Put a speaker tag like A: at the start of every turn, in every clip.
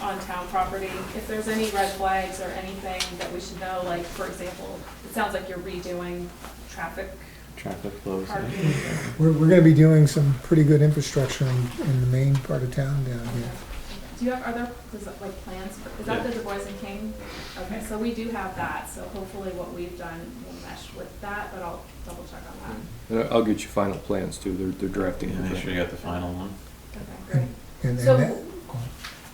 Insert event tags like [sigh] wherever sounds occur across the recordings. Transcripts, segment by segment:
A: on town property, if there's any red flags or anything that we should know, like, for example, it sounds like you're redoing traffic
B: Traffic flows. yeah.
A: parking.
C: We're, we're gonna be doing some pretty good infrastructure in, in the main part of town down here.
A: Do you have, are there, is that like plans, for- is that the Du Bois and King? Okay, so we do have that, so hopefully what we've done will mesh with that, but I'll double check on that.
B: Uh, I'll get you final plans too, they're, they're drafting.
D: Yeah, make
B: everything.
D: sure you got the final one.
A: Okay, great.
C: And, and that,
A: So,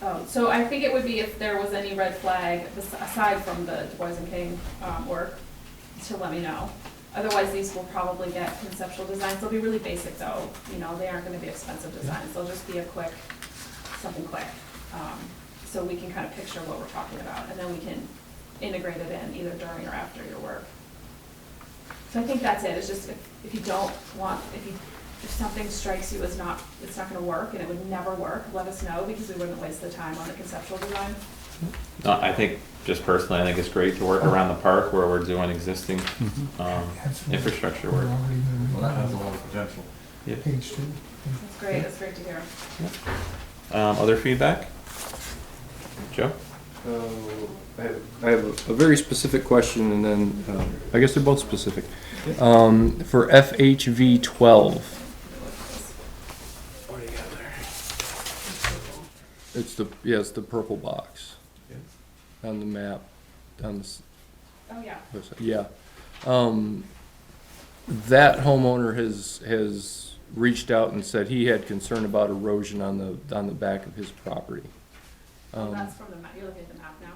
A: oh, so I think it would be if there was any red flag bes- aside from the Du Bois and King um, work, to let me know. Otherwise, these will probably get conceptual designs. They'll be really basic though, you know, they aren't gonna be expensive designs. They'll just be a quick, something quick. um, So we can kind of picture what we're talking about and then we can integrate it in either during or after your work. So I think that's it, it's just if, if you don't want, if you, if something strikes you as not, it's not gonna work and it would never work, let us know because we wouldn't waste the time on the conceptual design.
D: No, I think, just personally, I think it's great to work around the park where we're doing existing, um,
C: Absolutely.
D: infrastructure
C: we're
D: work.
C: already
E: Well, that has a
C: moving
E: lot of potential.
C: on page two.
A: That's great, that's great to hear.
D: Um, other feedback? Joe?
B: Uh, I have- I have a very specific question and then, um, I guess they're both specific. Um, For FHV twelve, it's the, yeah, it's the purple box on the map, on the, s-
A: Oh, yeah.
B: what's that? yeah. Um, That homeowner has, has reached out and said he had concern about erosion on the, on the back of his property.
A: Well,
B: Um,
A: that's from the map, you're looking at the map now.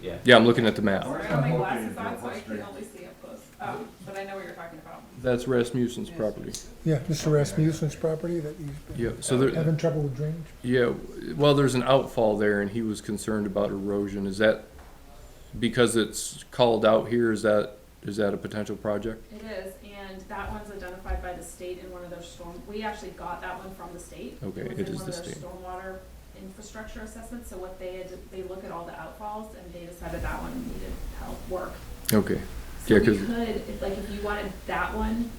D: Yeah.
B: Yeah, I'm looking at the map.
A: Sorry, I don't have my glasses on, so I can only see up close, um, but I know what you're talking about.
B: That's Rasmussen's property.
C: Yeah, Mr. Rasmussen's property that you've
B: Yeah, so
C: been
B: there,
C: having trouble with drainage?
B: yeah, well, there's an outfall there and he was concerned about erosion. Is that because it's called out here, is that, is that a potential project?
A: It is, and that one's identified by the state in one of their storm, we actually got that one from the state.
B: Okay,
A: was
B: it
A: in one
B: is the
A: of their
B: state.
A: Stormwater infrastructure assessments, so what they had, they look at all the outfalls and they decided that one needed help, work.
B: Okay,
A: So
B: Yeah,
A: we
B: 'cause-
A: could, if, like, if you wanted that one,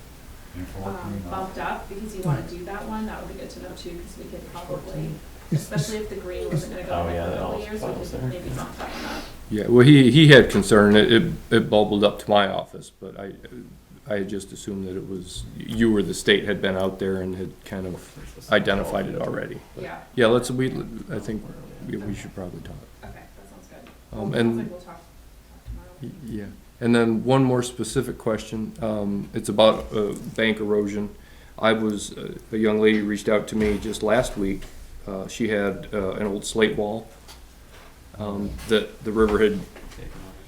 A: um, bumped up, because you wanna do that one, that would be good to know too, because we could probably,
C: Is- is-
A: especially if the green wasn't gonna go
D: Oh,
A: like
D: yeah,
A: the
D: that
A: early
D: was-
A: years,
D: that
A: we
D: was
A: could
D: there.
A: maybe bump that one up.
B: yeah, well, he, he had concern, it, it- it bubbled up to my office, but I, I had just assumed that it was, you or the state had been out there and had kind of identified it already.
A: Yeah,
B: Yeah, let's, we, I think, yeah, we should probably talk.
A: okay, that sounds good.
B: Um,
A: Sounds
B: and-
A: like we'll talk, talk tomorrow.
B: Y- Yeah, and then one more specific question, um, it's about, uh, bank erosion. I was, uh, a young lady reached out to me just last week, uh, she had, uh, an old slate wall, um, that the river had,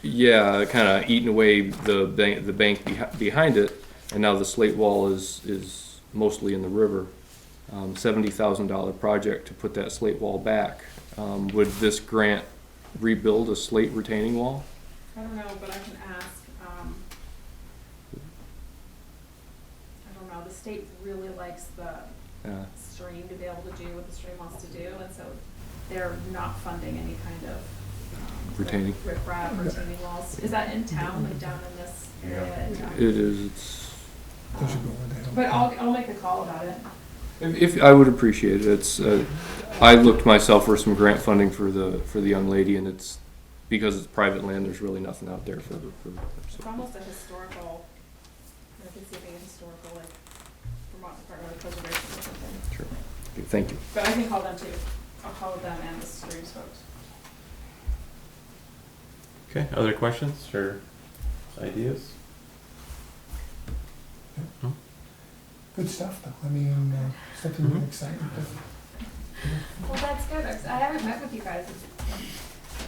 B: yeah, kinda eaten away the bank, the bank behi- behind it, and now the slate wall is, is mostly in the river. Um, seventy thousand dollar project to put that slate wall back, um, would this grant rebuild a slate retaining wall?
A: I don't know, but I can ask, um, I don't know, the state really likes the
B: Uh,
A: stream to be able to do what the stream wants to do, and so they're not funding any kind of. um,
B: Retaining.
A: like Riprap, retaining walls, is that in town, like down in this area in town?
B: It is, it's,
C: Those are going down.
A: But I'll, I'll make a call about it.
B: if, if- I would appreciate it, it's, uh, I looked myself for some grant funding for the, for the young lady, and it's, because it's private land, there's really nothing out there for, for.
A: It's almost a historical, I can see it being a historical, like Vermont Department of Preservation or something,
B: Sure. Okay, Thank you.
A: [laughs] but I can call them too, I'll call them and the streams folks.
D: Okay, other questions or ideas?
C: Good stuff, though. I mean, uh, something
E: Mm-hmm.
D: Mhm.
C: exciting.
A: Well, that's good. I'm s- I haven't met with you guys,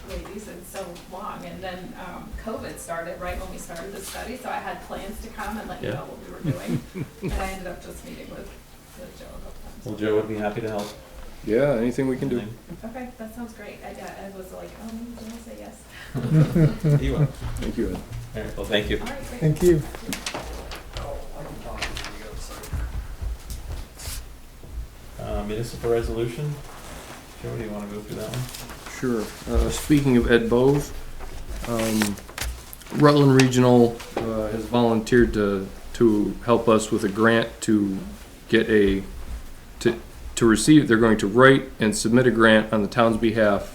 A: ladies, in so long. And then um, COVID started right when we started the study, so I had plans to come and let you
D: Yeah.
A: know what we were
D: [laughs]
A: doing. And I ended up just meeting with with Joe a
D: Well,
A: couple times.
D: Joe would be happy to help.
B: Yeah, anything we can do.
A: Okay, that sounds great. I, yeah, I was like, um, did I say yes?
D: He will. [laughs] All
B: Thank you, Ed.
D: right, well, thank you.
A: All right, great.
C: Thank you.
D: Uh, municipal resolution. Joe, do you wanna go through that one?
B: Sure. Uh, Speaking of Ed Bowes, um, Rutland Regional uh, has volunteered to, to help us with a grant to get a, to, to receive, they're going to write and submit a grant on the town's behalf